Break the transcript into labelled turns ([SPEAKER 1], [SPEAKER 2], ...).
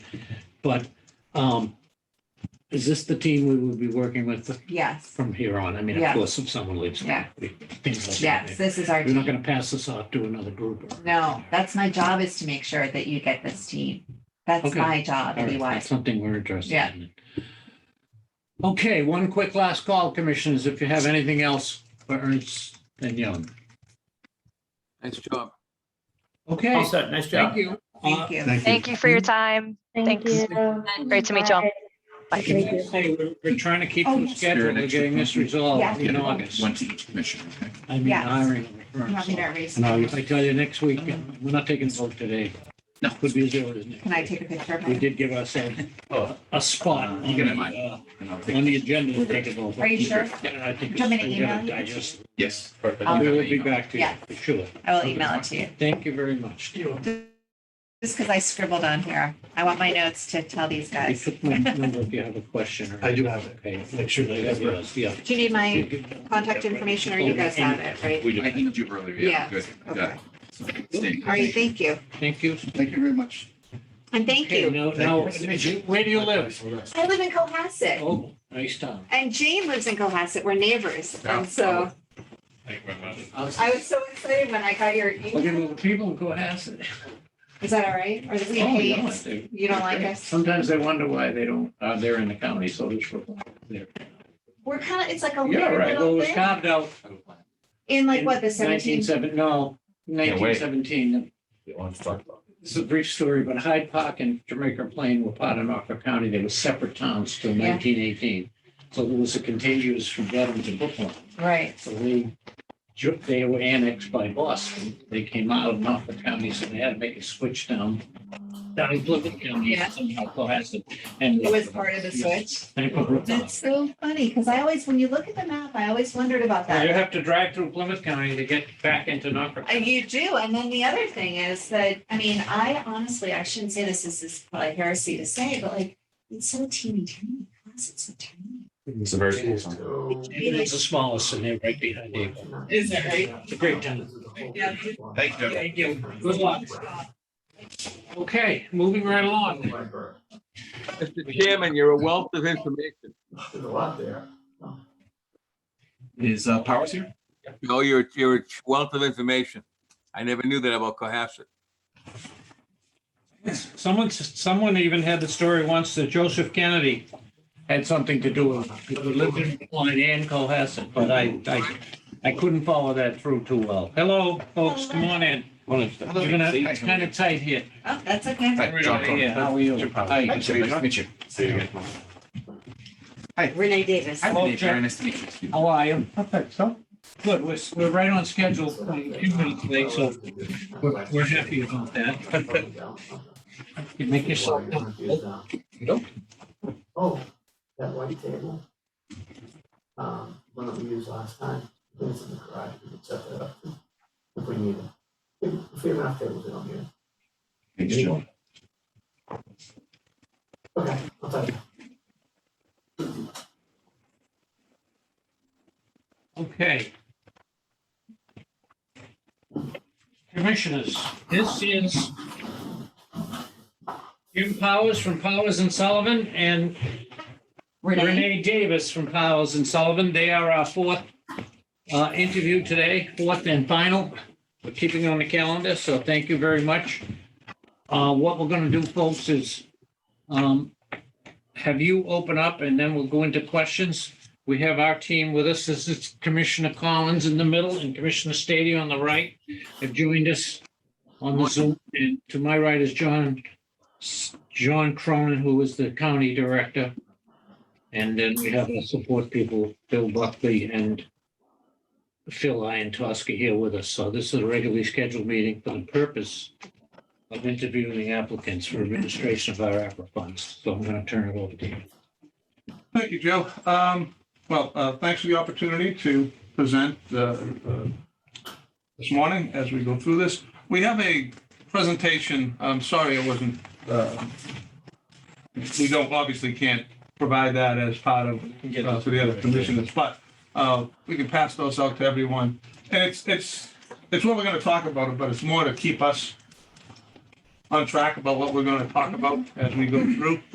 [SPEAKER 1] But um, is this the team we will be working with
[SPEAKER 2] Yes,
[SPEAKER 1] from here on? I mean, of
[SPEAKER 2] Yeah.
[SPEAKER 1] course, if someone leaves.
[SPEAKER 2] Yeah.
[SPEAKER 1] we- things like that.
[SPEAKER 2] yes, this is our
[SPEAKER 1] We're not
[SPEAKER 2] team.
[SPEAKER 1] going to pass this off to another group. or-
[SPEAKER 2] No, that's my job is to make sure that you get this team. That's
[SPEAKER 1] Okay.
[SPEAKER 2] my job,
[SPEAKER 1] All right,
[SPEAKER 2] anyway.
[SPEAKER 1] that's Something we're interested
[SPEAKER 2] Yeah.
[SPEAKER 1] in. Okay, one quick last call, commissioners, if you have anything else for Ernst and Young.
[SPEAKER 3] Nice job.
[SPEAKER 1] Okay,
[SPEAKER 4] All set. Nice job.
[SPEAKER 1] thank you. Uh,
[SPEAKER 2] Thank you.
[SPEAKER 5] Thank you for your time.
[SPEAKER 6] Thank
[SPEAKER 5] Thanks.
[SPEAKER 6] you.
[SPEAKER 5] Great to meet you all.
[SPEAKER 6] Bye.
[SPEAKER 1] Can I say We're we're trying to keep
[SPEAKER 2] Oh,
[SPEAKER 1] the
[SPEAKER 2] yes.
[SPEAKER 1] schedule, we're getting this resolved
[SPEAKER 2] Yeah.
[SPEAKER 1] in August.
[SPEAKER 7] One to each commission, okay?
[SPEAKER 1] I mean,
[SPEAKER 2] Yes.
[SPEAKER 1] hiring. of
[SPEAKER 2] You
[SPEAKER 1] Ernst.
[SPEAKER 2] want me to erase?
[SPEAKER 1] No, if I tell you next week, we're not taking a vote today.
[SPEAKER 7] No.
[SPEAKER 1] Could be as early as next
[SPEAKER 2] Can I
[SPEAKER 1] week.
[SPEAKER 2] take a picture of
[SPEAKER 1] We
[SPEAKER 2] it?
[SPEAKER 1] did give ourselves a- a spot on
[SPEAKER 7] Oh. You can have
[SPEAKER 1] the,
[SPEAKER 7] mine.
[SPEAKER 1] uh,
[SPEAKER 7] And I'll
[SPEAKER 1] on
[SPEAKER 7] take-
[SPEAKER 1] the agenda to take a vote.
[SPEAKER 2] Are you sure?
[SPEAKER 1] Yeah, I think.
[SPEAKER 2] Do you want me to
[SPEAKER 1] it's- we gotta
[SPEAKER 2] email you?
[SPEAKER 1] digest it.
[SPEAKER 7] Yes.
[SPEAKER 2] Um,
[SPEAKER 1] We will be back to you,
[SPEAKER 2] Yeah.
[SPEAKER 1] for sure.
[SPEAKER 2] I will email it to you.
[SPEAKER 1] Thank you very much.
[SPEAKER 2] Just because I scribbled on here. I want my notes to tell these
[SPEAKER 1] I
[SPEAKER 2] guys.
[SPEAKER 1] took my number if you have a question. or-
[SPEAKER 8] I do have it.
[SPEAKER 1] Okay, make sure they have yours, yeah.
[SPEAKER 2] Do you need my contact information or you guys have it, right?
[SPEAKER 7] I emailed you earlier, yeah,
[SPEAKER 2] Yeah,
[SPEAKER 7] good. I got
[SPEAKER 2] Okay.
[SPEAKER 7] it. Stay.
[SPEAKER 2] All right, thank you.
[SPEAKER 1] Thank you.
[SPEAKER 7] Thank you very much.
[SPEAKER 2] And thank
[SPEAKER 1] Okay,
[SPEAKER 2] you.
[SPEAKER 1] Now, now, where do you live?
[SPEAKER 2] I live in Cohasset
[SPEAKER 1] Oh, nice town.
[SPEAKER 2] and Jane lives in Cohasset. We're neighbors.
[SPEAKER 7] Yeah.
[SPEAKER 2] And so I was so excited when I got your
[SPEAKER 1] Look at all
[SPEAKER 2] email.
[SPEAKER 1] the people in Cohasset.
[SPEAKER 2] Is that all right? Or do we
[SPEAKER 1] Oh, yeah, Um,
[SPEAKER 2] hate?
[SPEAKER 1] they-
[SPEAKER 2] You don't like us?
[SPEAKER 1] Sometimes I wonder why they don't, uh, they're in the county, so it's. Yeah,
[SPEAKER 2] We're kind of, it's like a weird
[SPEAKER 1] right. Well, it
[SPEAKER 2] Oh, little
[SPEAKER 1] was
[SPEAKER 2] thing.
[SPEAKER 1] carved out.
[SPEAKER 2] In like
[SPEAKER 1] in
[SPEAKER 2] what, the
[SPEAKER 1] 19
[SPEAKER 2] seventeen?
[SPEAKER 1] seven- no, nineteen seventeen. This is a brief story, but Hyde Park and Jamaica Plain were part of Norfolk County. They were separate towns till
[SPEAKER 2] Yeah.
[SPEAKER 1] nineteen eighteen. So it was a contiguous from Dedham to Brooklyn.
[SPEAKER 2] Right.
[SPEAKER 1] So they, ju- they were annexed by Boston. They came out of Norfolk County, so they had to make a switch down. Down in Plymouth County,
[SPEAKER 2] Yeah.
[SPEAKER 1] somehow Cohasset. and-
[SPEAKER 2] It was part of the switch.
[SPEAKER 1] and Brooklyn.
[SPEAKER 2] That's so funny, because I always, when you look at the map, I always wondered about
[SPEAKER 1] Now,
[SPEAKER 2] that.
[SPEAKER 1] You have to drive through Plymouth County to get back into Norfolk.
[SPEAKER 2] Uh, You do, and then the other thing is that, I mean, I honestly, I shouldn't say this, this is probably heresy to say, but like, it's so teeny tiny, it's so tiny.
[SPEAKER 3] It's a very cool song.
[SPEAKER 1] Oh, And It's the smallest and they're right behind you.
[SPEAKER 2] Is it right?
[SPEAKER 1] It's a great town.
[SPEAKER 2] Yeah.
[SPEAKER 7] Thank you.
[SPEAKER 1] Thank you. Good luck. Okay, moving right along.
[SPEAKER 3] Mr. Chairman, you're a wealth of information.
[SPEAKER 7] Is uh, Powers here?
[SPEAKER 3] No, you're, you're a wealth of information. I never knew that about Cohasset.
[SPEAKER 1] Someone, someone even had the story once that Joseph Kennedy had something to do with, it. he lived in Florida and Cohasset, but I, I, I couldn't follow that through too well. Hello, folks, come on in. You're gonna, it's kind of tight here.
[SPEAKER 2] Oh, that's okay.
[SPEAKER 7] Hi, John Cronin.
[SPEAKER 1] Yeah, how are you?
[SPEAKER 7] Hi, nice to meet you.
[SPEAKER 2] Renee Davis.
[SPEAKER 7] Hi,
[SPEAKER 1] Hello,
[SPEAKER 7] Dave.
[SPEAKER 1] Jack.
[SPEAKER 7] Very nice to meet you.
[SPEAKER 1] How are you? Good, we're, we're right on schedule, a few minutes late, so we're, we're happy about that. You make yourself comfortable.
[SPEAKER 8] Nope. Oh, that white table. Um, one that we used last time, it's in the garage, we can set that up if we need it. If- If we have enough tables in here.
[SPEAKER 7] Thanks, John.
[SPEAKER 8] Okay, I'll tell you.
[SPEAKER 1] Okay. Commissioners, this is Jim Powers from Powers and Sullivan and Renee Davis from Powers and Sullivan. They are our fourth uh, interview today, fourth and final. We're keeping on the calendar, so thank you very much. Uh, What we're going to do, folks, is um, have you open up and then we'll go into questions. We have our team with us. This is Commissioner Collins in the middle and Commissioner Stady on the right have joined us on the Zoom. And to my right is John, John Cronin, who is the county director. And then we have the support people, Bill Buckley and Phil Iantoski here with us. So this is a regularly scheduled meeting for the purpose of interviewing applicants for administration of our ARPA funds. So I'm going to turn it over to you.
[SPEAKER 9] Thank you, Joe. Um, Well, uh, thanks for the opportunity to present uh, uh, this morning as we go through this. We have a presentation, I'm sorry it wasn't, uh, we don't, obviously can't provide that as part of, uh, to the other commissioners, but uh, we can pass those out to everyone. And it's, it's, it's what we're going to talk about, but it's more to keep us on track about what we're going to talk about as we go through.